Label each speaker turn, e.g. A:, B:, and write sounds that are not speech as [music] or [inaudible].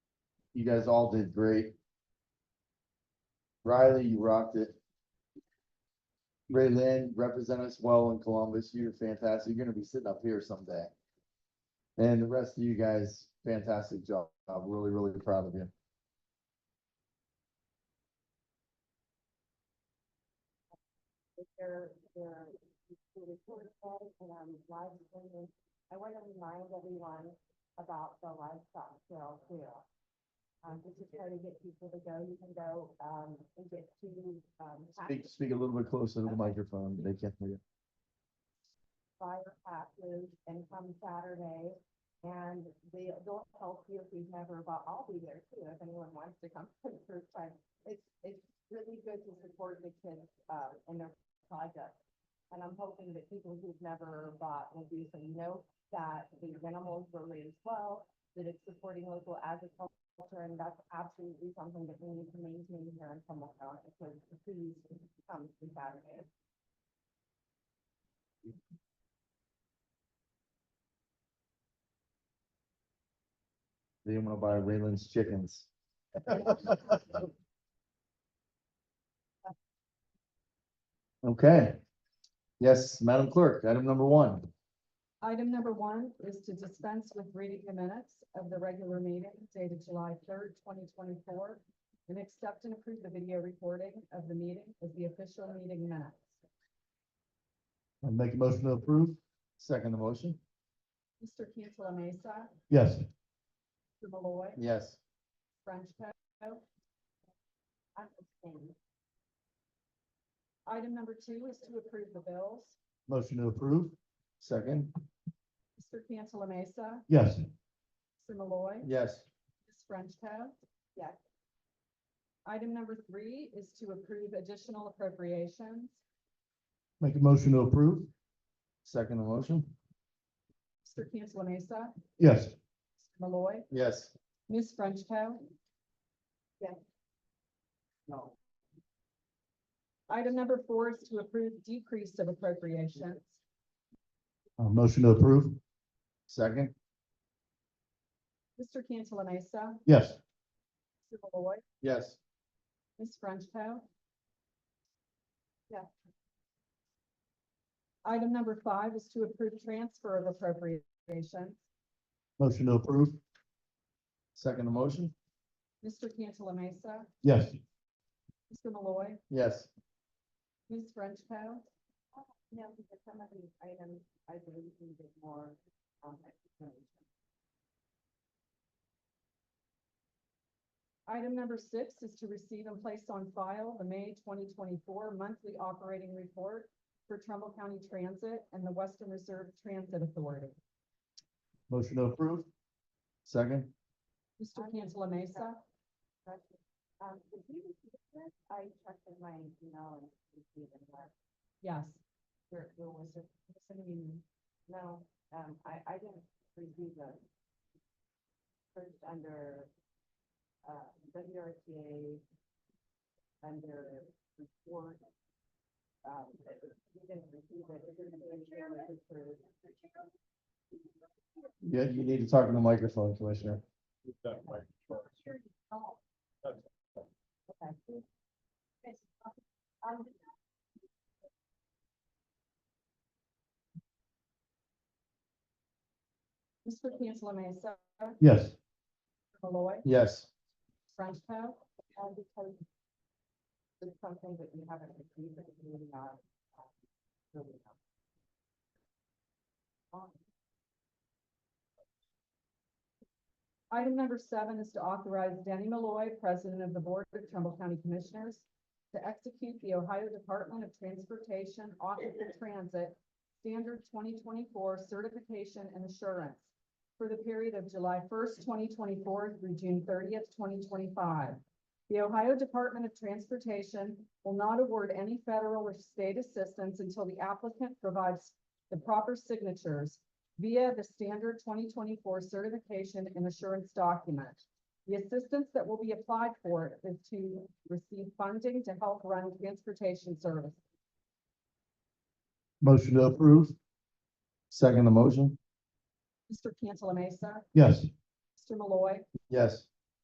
A: You guys all did great. Riley, you rocked it. Ray Lynn, represent us well in Columbus. You're fantastic. You're gonna be sitting up here someday. And the rest of you guys, fantastic job. I'm really, really proud of you.
B: their, their, the report card and um, live streaming. I want to remind everyone about the livestock sale here. Um, this is trying to get people to go, you can go, um, and get to, um,
A: Speak, speak a little bit closer to the microphone. They can't hear you.
B: fire passes and come Saturday. And they, they'll help you if you've never, but I'll be there too, if anyone wants to come [laughs] for the first time. It's, it's really good to support the kids, um, and their project. And I'm hoping that people who've never bought will do so, you know, that the animals were raised well, that it's supporting local agriculture, and that's absolutely something that we need to maintain here in Humboldt County. So please come to Saturday.
A: They want to buy Raylan's chickens. Okay. Yes, Madam Clerk, item number one.
C: Item number one is to dispense with reading the minutes of the regular meeting dated July third, twenty twenty-four, and accept and approve the video recording of the meeting as the official meeting minutes.
A: I Make a motion to approve. Second the motion.
C: Mr. Cantala Mesa,
A: Yes.
C: Mr. Malloy,
A: Yes.
C: Frenchco.
B: I'm abstaining.
C: Item number two is to approve the bills.
A: Motion to approve. Second.
C: Mr. Cantala Mesa,
A: Yes.
C: Mr. Malloy,
A: Yes.
C: Ms. Frenchco.
B: Yes.
C: Item number three is to approve additional appropriations.
A: Make a motion to approve. Second the motion.
C: Mr. Cantala Mesa,
A: Yes.
C: Mr. Malloy,
A: Yes.
C: Ms. Frenchco.
B: No.
C: Item number four is to approve decrease of appropriations.
A: Uh, motion to approve. Second.
C: Mr. Cantala Mesa,
A: Yes.
C: Mr. Malloy,
A: Yes.
C: Ms. Frenchco.
B: Yes.
C: Item number five is to approve transfer of appropriations.
A: Motion to approve. Second the motion.
C: Mr. Cantala Mesa,
A: Yes.
C: Mr. Malloy,
A: Yes.
C: Ms. Frenchco.
B: No, because some of these items, I believe needed more, um, explanation.
C: Item number six is to receive and place on file the May twenty twenty-four monthly operating report for Trumbull County Transit and the Western Reserve Transit Authority.
A: Motion to approve. Second.
C: Mr. Cantala Mesa,
B: Question. Um, did you receive this? I checked in my email and received it, but
C: yes.
B: there, there was a, was an email. No, um, I, I didn't receive the first under, uh, WRTA, under report. Um, we didn't receive it. It didn't really show it was approved.
A: Yeah, you need to talk in the microphone, Commissioner.
B: Okay.
C: Mr. Cantala Mesa,
A: Yes.
C: Malloy,
A: Yes.
C: Frenchco.
B: And because it's something that we haven't received, that we may not.
C: um,
B: uh, really know. Um,
C: Item number seven is to authorize Danny Malloy, President of the Board of Trumbull County Commissioners, to execute the Ohio Department of Transportation Office of Transit Standard twenty twenty-four Certification and Assurance for the period of July first, twenty twenty-four through June thirtieth, twenty twenty-five. The Ohio Department of Transportation will not award any federal or state assistance until the applicant provides the proper signatures via the standard twenty twenty-four certification and assurance document. The assistance that will be applied for is to receive funding to help run transportation service.
A: Motion to approve. Second the motion.
C: Mr. Cantala Mesa,
A: Yes.
C: Mr. Malloy,
A: Yes.